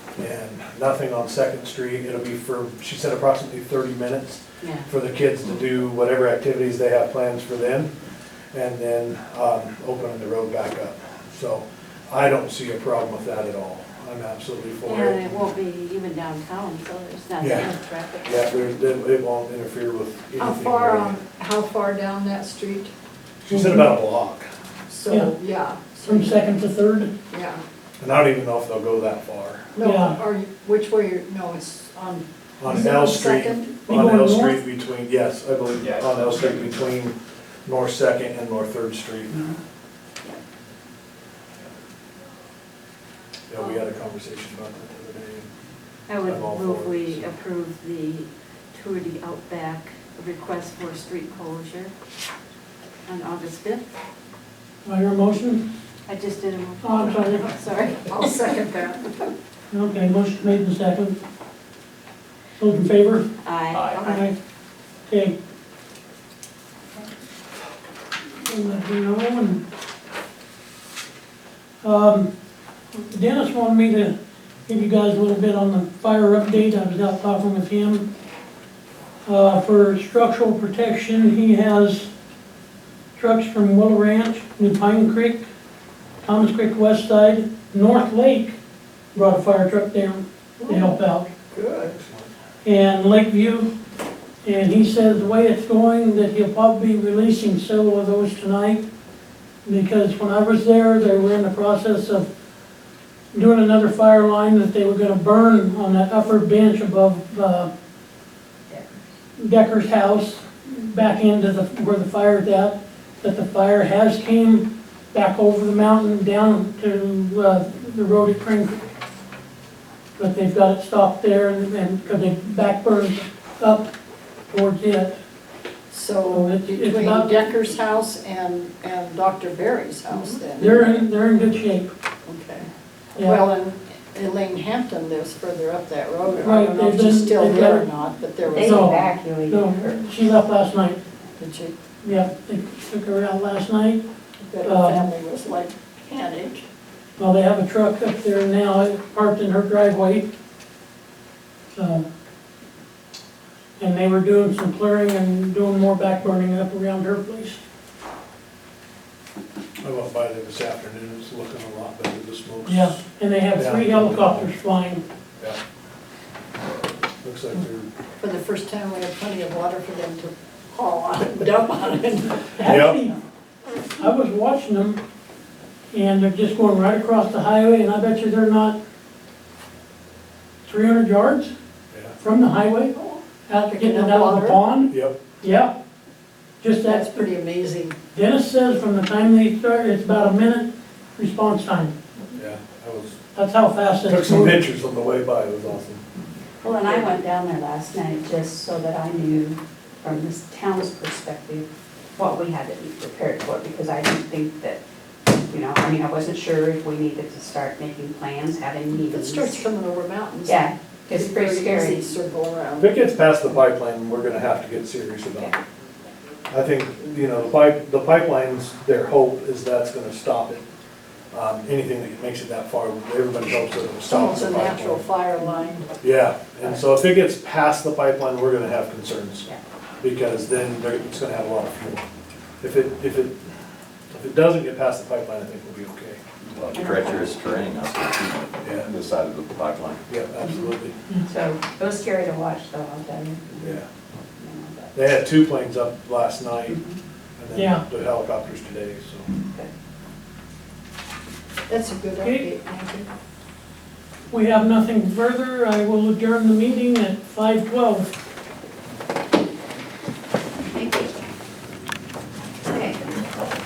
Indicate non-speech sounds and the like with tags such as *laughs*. and nothing on Second Street. It'll be for, she said approximately thirty minutes Yeah. for the kids to do whatever activities they have plans for them, and then, um, opening the road back up. So I don't see a problem with that at all. I'm absolutely for Yeah, it. and it won't be even downtown, so there's not Yeah. much traffic. Yeah, there's, it it won't interfere with anything. How far, really. um, how far down that street? She said about a block, So, yeah, From second to third, yeah. and I don't even know if they'll go that far. No, Yeah. or you- which way you're, no, it's um, on. On is it L Street, Second? They on going L north? Street between, yes, I believe, Yeah. on L Street between North Second and North Third Street. Uh-huh. Yeah, we had a conversation about that the other day. I I'm would all move for it, we so. approve the Tour de Outback request for street closure on August fifth. do I hear a motion? I just did a. Oh, I'm sorry. *laughs* Sorry. I'll second that. Okay, motion made in second. Those in favor? Aye. Aye. Okay. We'll let you know and- Um, Dennis wanted me to give you guys a little bit on the fire update, I was out talking with him. Uh, for structural protection, he has trucks from Willow Ranch, New Pine Creek, Thomas Creek West Side, North Lake brought a fire truck down to help out Good. and Lakeview. And he says the way it's going, that he'll probably be releasing several of those tonight. Because when I was there, they were in the process of doing another fire line that they were gonna burn on that upper bench above, uh, Decker's house, back into the, where the fire's at. But the fire has came back over the mountain down to, uh, the road at Crane Creek but they've got it stopped there and, and, cause they backburned up towards it. So Well, it- it's between about- Decker's house and, and Dr. Berry's house then? They're in, they're in good shape, Okay. yeah. Well, and Elaine Hampton lives further up that road. I Right, don't know if they've she's been- still they've there or been- not, but there They was, No. evacuated her. No, she left last night, did you, yeah, they took her out last night. that her Um, family was like panicked. Well, they have a truck up there now uh, parked in her driveway. Um, And they were doing some clearing and doing more backburning up around her place. I went by there this afternoon, it's looking a lot better, the smoke's. Yeah, and they have three Yeah. helicopters flying. Yeah. Looks like they're, For the first time, we had plenty of water for them to haul on and *laughs* dump on it. Actually, I was watching them, and they're just going right across the highway, and I bet you they're not three hundred yards from the highway, out getting it out of the pond, yeah, yep, yeah. Just That's that, pretty amazing. Dennis says from the time they start, it's about a minute response time, yeah, I was, that's how fast took it's some moving. pictures on the way by, it was awesome. Well, and I went down there last night just so that I knew from this town's perspective what we had to be prepared for, because I didn't think that, you know, I mean, I wasn't sure if we needed to start making plans, having If It meetings. starts coming over mountains. Yeah, it's pretty Very easy scary. circle If around. it gets past the pipeline, we're gonna have to get serious about it. I think, you know, the pipe, the pipelines, their hope is that's gonna stop it. Um, anything that makes it that far, everybody hopes that it'll It's stop almost the a natural pipeline. fire line. Yeah, and so if it gets past the pipeline, we're gonna have concerns. Yeah. Because then they're, it's gonna have a lot of fuel. If it, if it, if it doesn't get past the pipeline, I think we'll be okay. Well, treacherous terrain, that's what Yeah. you, the side of the pipeline. Yeah, absolutely, So it was scary to watch though, I'll tell you. yeah. You know, but They had two planes up last night, and Yeah. then the helicopters today, so. That's a good Okay. update, thank you. We have nothing further, I will adjourn the meeting at five twelve.